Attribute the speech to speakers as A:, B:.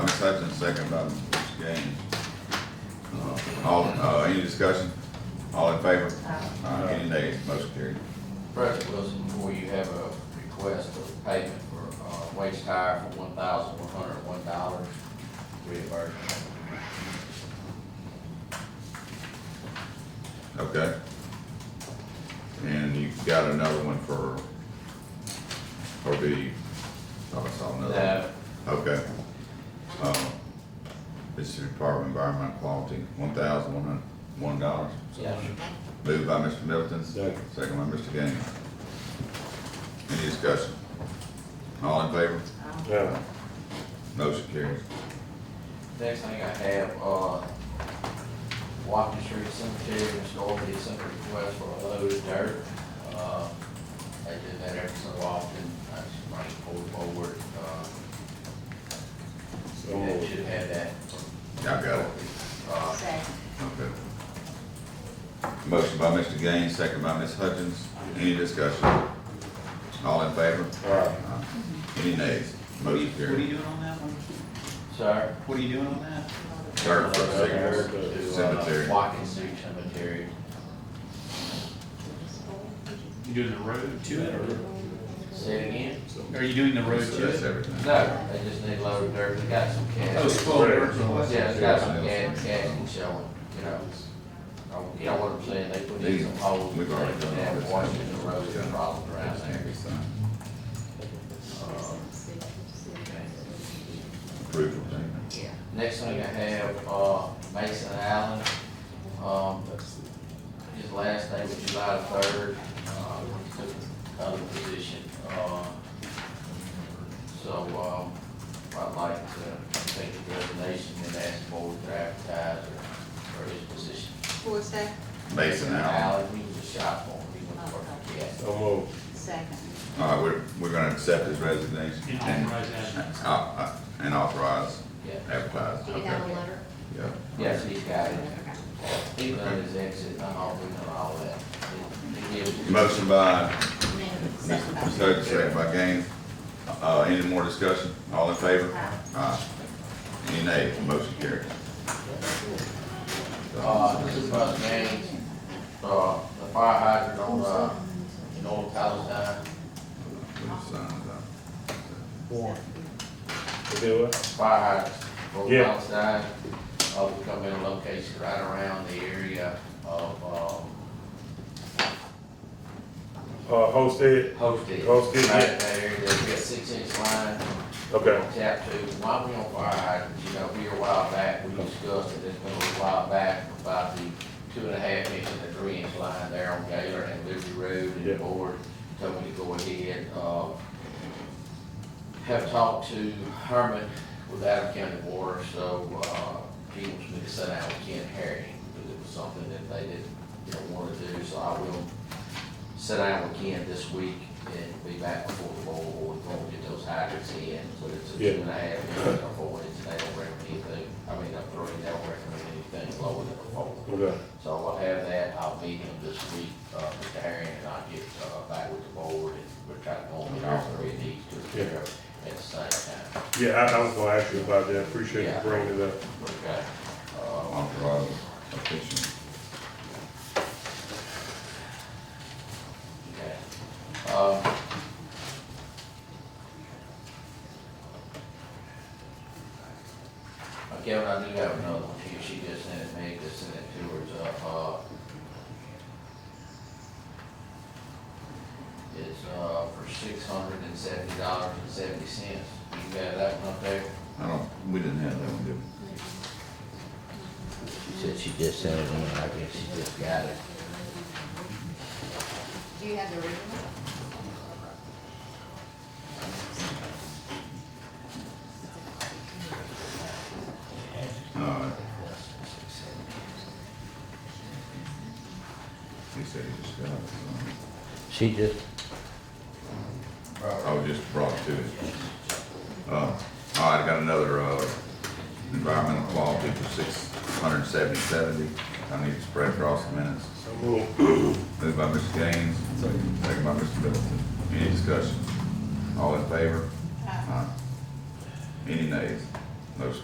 A: Hutchins, second by Mr. Gaines. Uh, All, uh, any discussion? All in favor? Uh, any nays? Motion carried.
B: President Wilson, before you have a request of payment for, uh, waste tire for one thousand one hundred and one dollars reimbursement.
A: Okay. And you got another one for, for the, oh, I saw another.
B: Now,
A: Okay. Um, This is Department of Environmental Quality, one thousand one hundred, one dollars.
B: yes,
A: Moved by Mr. Middleton.
C: Second.
A: Second by Mr. Gaines. Any discussion? All in favor?
C: Yeah.
A: Motion carries.
B: next thing I have, uh, Watkins Street Cemetery Restorative Center request for a load of dirt. Uh, They do that every so often, that's my pull forward, uh,
C: So
B: that
C: moved.
B: should have that.
A: I got it.
B: Uh,
D: Second.
A: Okay. Motion by Mr. Gaines, second by Ms. Hutchins. Any discussion? All in favor?
C: Aye.
A: Aye. Any nays? Motion
E: What are you, what are you
A: carries.
E: doing on that one?
B: Sir? Uh,
E: What are you doing on that?
A: Third for signals. Cemetery.
B: Watkins Street Cemetery.
E: You doing the road to it,
B: Say it again?
E: or are you doing the road
A: So that's
E: to it?
A: everything.
B: No, they just need a load of dirt, they got some cash.
E: Oh, spoiler.
B: Yeah, it's got some cash, cash and showing, you know. Oh, You know what I'm saying, they put in some holes, they
A: We've already done all
B: have
A: this.
B: washing the road, the problem around
A: That's
B: there.
A: every sign.
B: Uh,
A: Approval payment.
B: Next thing I have, uh, Mason Allen, um, his last day was July third, uh, he took another position, uh, so, um, I'd like to take the resignation and ask the board to advertise for, for his position.
D: Who is that?
A: Mason Allen.
B: Allen, he was a shop owner, he went to work for gas.
C: So moved.
D: Second.
A: All right, we're, we're gonna accept his resignation.
E: And authorize that.
A: Uh, uh, And authorize,
B: Yeah.
A: advertise.
D: You
A: Okay.
D: got a letter?
A: Yeah.
B: Yes, he's got it,
D: Okay.
B: he done his exit, and all, we know all that. He- he gives-
A: Motion by
D: Then second by-
A: Mr. Sturgis, second by Gaines. Uh, any more discussion? All in favor? Aye. Any nay? Motion carried.
B: Uh, this is about James, uh, the fire hydrant on, uh, in Old Palestine,
A: uh,
C: One. To do it?
B: fire hydrant, Old
C: Yeah.
B: Palestine. Uh, we come in a location right around the area of, um,
C: Uh, hosted,
B: Hosted.
C: Hosted, yeah.
B: Right there, there's a six inch line,
C: okay,
B: tap to, why we on fire hydrants, you know, we a while back, we discussed it, it's been a little while back about the two and a half inch and the three inch line there on Gaylor and Liberty Road and
C: Yeah.
B: the board told me to go ahead, uh, have talked to Herman with Adam County Water, so, uh, he wants me to sit down with Ken Harry, because it was something that they didn't, you know, wanna do, so I will sit down with Ken this week and be back before the board, we're gonna get those hydrants in, so it's a
C: Yeah.
B: two and a half, inch or four inch, they don't recommend anything, I mean, up three, they don't recommend anything lower than a four.
C: okay,
B: So I'll have that, I'll meet him this week, uh, Mr. Herring, and I'll get, uh, back with the board, and we're trying to go and get all three of these to the chair at the same time.
C: yeah, I, I was gonna ask you about that, appreciate you bringing it up.
B: Okay, uh,
A: Authorize official.
B: okay. Um, Okay, well, I do have another one here, she just sent it, me. just sent it to her, it's, uh, uh, it's, uh, for six hundred and seventy dollars and seventy cents, you got that one up there?
A: I don't, we didn't have that one, did we?
B: She said she just sent it in, I guess she just got it.
D: Do you have the original?
A: All right. He said he just got it.
B: She just.
A: I was just brought to it. Uh, all right, I got another, uh, environmental quality for six hundred and seventy seventy. I need to spread across the minutes.
C: So moved.
A: Moved by Mr. Gaines, second by Mr. Middleton. Any discussion? All in favor? Aye. Any nays? Motion